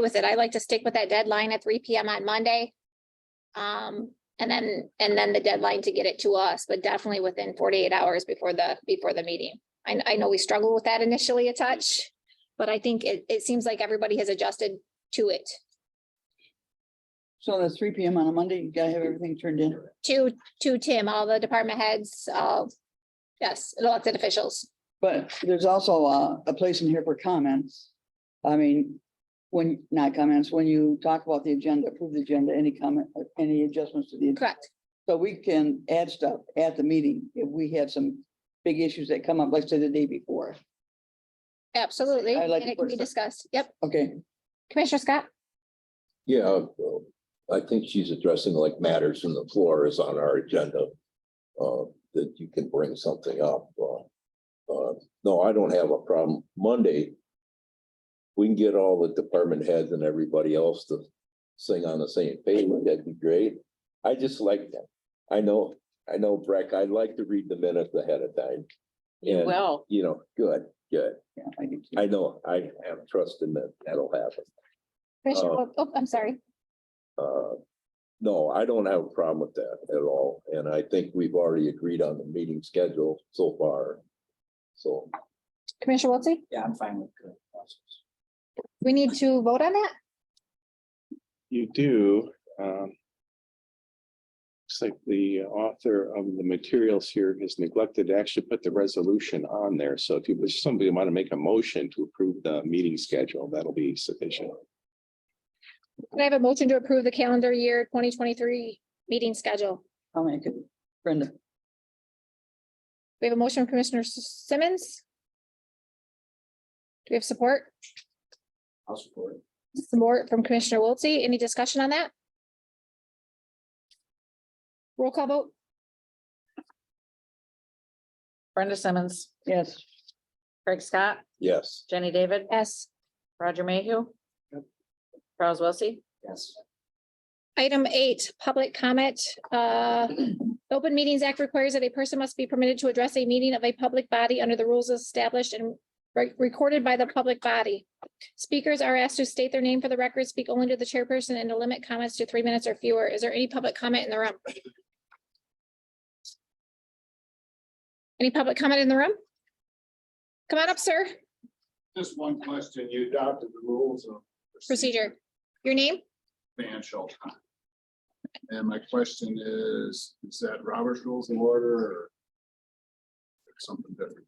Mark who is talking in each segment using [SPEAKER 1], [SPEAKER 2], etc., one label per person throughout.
[SPEAKER 1] with it. I like to stick with that deadline at three PM on Monday. Um, and then, and then the deadline to get it to us, but definitely within forty-eight hours before the, before the meeting. I, I know we struggled with that initially a touch, but I think it, it seems like everybody has adjusted to it.
[SPEAKER 2] So that's three P M on a Monday, you gotta have everything turned in.
[SPEAKER 1] To, to Tim, all the department heads, uh, yes, elected officials.
[SPEAKER 2] But there's also a, a place in here for comments. I mean, when, not comments, when you talk about the agenda, approve the agenda, any comment, uh, any adjustments to the. agenda.
[SPEAKER 1] Correct.
[SPEAKER 2] So we can add stuff at the meeting if we have some big issues that come up, like say the day before.
[SPEAKER 1] Absolutely.
[SPEAKER 2] I'd
[SPEAKER 1] And
[SPEAKER 2] like to
[SPEAKER 1] it can
[SPEAKER 2] put
[SPEAKER 1] be
[SPEAKER 2] some-
[SPEAKER 1] discussed. Yep.
[SPEAKER 2] Okay,
[SPEAKER 1] Commissioner Scott?
[SPEAKER 3] Yeah, well, I think she's addressing like matters from the floor is on our agenda. Uh, that you can bring something up. Uh, uh, no, I don't have a problem. Monday. We can get all the department heads and everybody else to sing on the same page. That'd be great. I just like that. I know, I know, Breck, I like to read the minutes ahead of time. And,
[SPEAKER 4] Well,
[SPEAKER 3] you know, good, good.
[SPEAKER 2] yeah, I do too.
[SPEAKER 3] I know, I have trust in that. That'll happen.
[SPEAKER 1] Commissioner,
[SPEAKER 3] Uh,
[SPEAKER 1] Wo- oh, I'm sorry.
[SPEAKER 3] Uh, No, I don't have a problem with that at all, and I think we've already agreed on the meeting schedule so far. So,
[SPEAKER 1] Commissioner Wiltie?
[SPEAKER 5] Yeah, I'm fine with the process.
[SPEAKER 1] We need to vote on that?
[SPEAKER 6] You do. um, Looks like the author of the materials here has neglected to actually put the resolution on there. So if you, if somebody want to make a motion to approve the meeting schedule, that'll be sufficient.
[SPEAKER 1] Can I have a motion to approve the calendar year twenty twenty-three meeting schedule?
[SPEAKER 2] I'll make it. Brenda,
[SPEAKER 1] We have a motion from Commissioner S- Simmons. Do we have support?
[SPEAKER 5] I'll support. it.
[SPEAKER 1] Support from Commissioner Wiltie. Any discussion on that? Roll call vote?
[SPEAKER 4] Brenda Simmons,
[SPEAKER 2] yes,
[SPEAKER 4] Craig Scott,
[SPEAKER 3] yes,
[SPEAKER 4] Jenny David,
[SPEAKER 1] Yes.
[SPEAKER 4] Roger Mayhew.
[SPEAKER 5] Yep.
[SPEAKER 4] Charles Wilsey,
[SPEAKER 5] Yes,
[SPEAKER 1] Item eight, public comment. Uh, Open Meetings Act requires that a person must be permitted to address a meeting of a public body under the rules established and re- recorded by the public body. Speakers are asked to state their name for the record, speak only to the chairperson, and to limit comments to three minutes or fewer. Is there any public comment in the room? Any public comment in the room? Come on up, sir.
[SPEAKER 7] Just one question. You adopted the rules of.
[SPEAKER 1] Procedure. Your name?
[SPEAKER 7] Man Shelton. And my question is, is that Robert's Rules of Order or something different?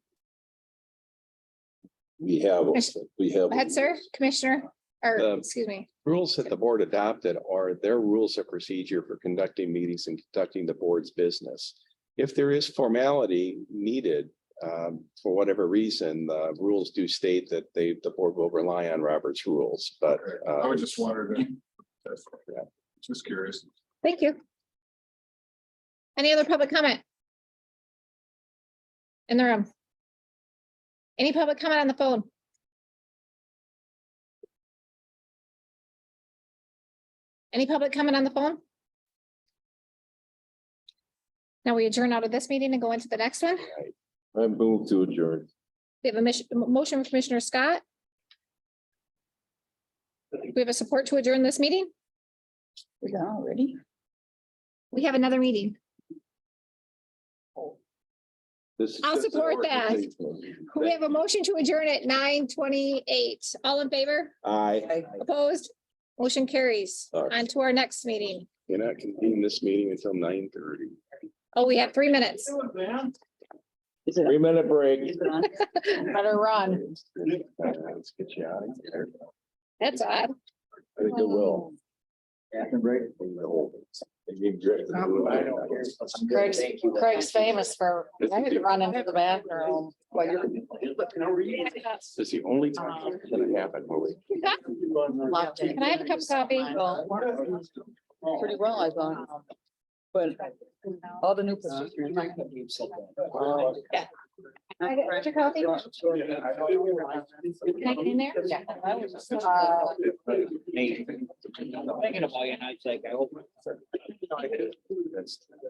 [SPEAKER 3] we have, we have.
[SPEAKER 1] Go ahead, sir. Commissioner, or,
[SPEAKER 6] Um,
[SPEAKER 1] excuse me.
[SPEAKER 6] Rules that the board adopted are their rules of procedure for conducting meetings and conducting the board's business. If there is formality needed, um, for whatever reason, the rules do state that they, the board will rely on Robert's rules, but. uh,
[SPEAKER 7] I was just wondering. That's-
[SPEAKER 6] Yeah.
[SPEAKER 7] Just curious.
[SPEAKER 1] Thank you. Any other public comment? In the room? Any public comment on the phone? Any public comment on the phone? Now we adjourn out of this meeting and go into the next one.
[SPEAKER 3] I move to adjourn.
[SPEAKER 1] We have a mission, a motion from Commissioner Scott. We have a support to adjourn this meeting.
[SPEAKER 2] we got already.
[SPEAKER 1] We have another meeting.
[SPEAKER 3] This is
[SPEAKER 1] I'll
[SPEAKER 3] just an
[SPEAKER 1] support that.
[SPEAKER 3] organizational meeting.
[SPEAKER 1] We have a motion to adjourn at nine twenty-eight. All in favor?
[SPEAKER 3] Aye.
[SPEAKER 1] Opposed? Motion carries.
[SPEAKER 3] All right.
[SPEAKER 1] On to our next meeting.
[SPEAKER 6] You're not convening this meeting until nine thirty.
[SPEAKER 1] Oh, we have three minutes.
[SPEAKER 2] Is it?
[SPEAKER 3] Three minute break.
[SPEAKER 2] is it on?
[SPEAKER 4] better run.
[SPEAKER 6] Let's get you out of here.
[SPEAKER 1] That's odd.
[SPEAKER 3] I think it will.
[SPEAKER 5] Yeah, I can break.
[SPEAKER 4] Craig's, Craig's famous for, I had to run into the bathroom.
[SPEAKER 2] Well, you're-
[SPEAKER 6] This is the only time it's gonna happen where we
[SPEAKER 4] Loved it.
[SPEAKER 1] Can I have a cup of coffee?
[SPEAKER 2] Pretty well, I thought, but all
[SPEAKER 6] Uh,
[SPEAKER 2] the new. procedures.
[SPEAKER 4] Yeah.
[SPEAKER 1] I got extra coffee. Can I get in there?
[SPEAKER 4] Yeah.
[SPEAKER 1] Uh,
[SPEAKER 5] Thinking about you, and I was like, I hope.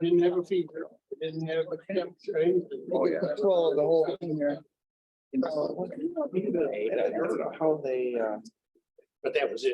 [SPEAKER 7] Didn't have a fever, didn't have a temperature.
[SPEAKER 6] Oh, yeah.
[SPEAKER 2] Control of the whole thing here.
[SPEAKER 5] How they, uh. But that was it.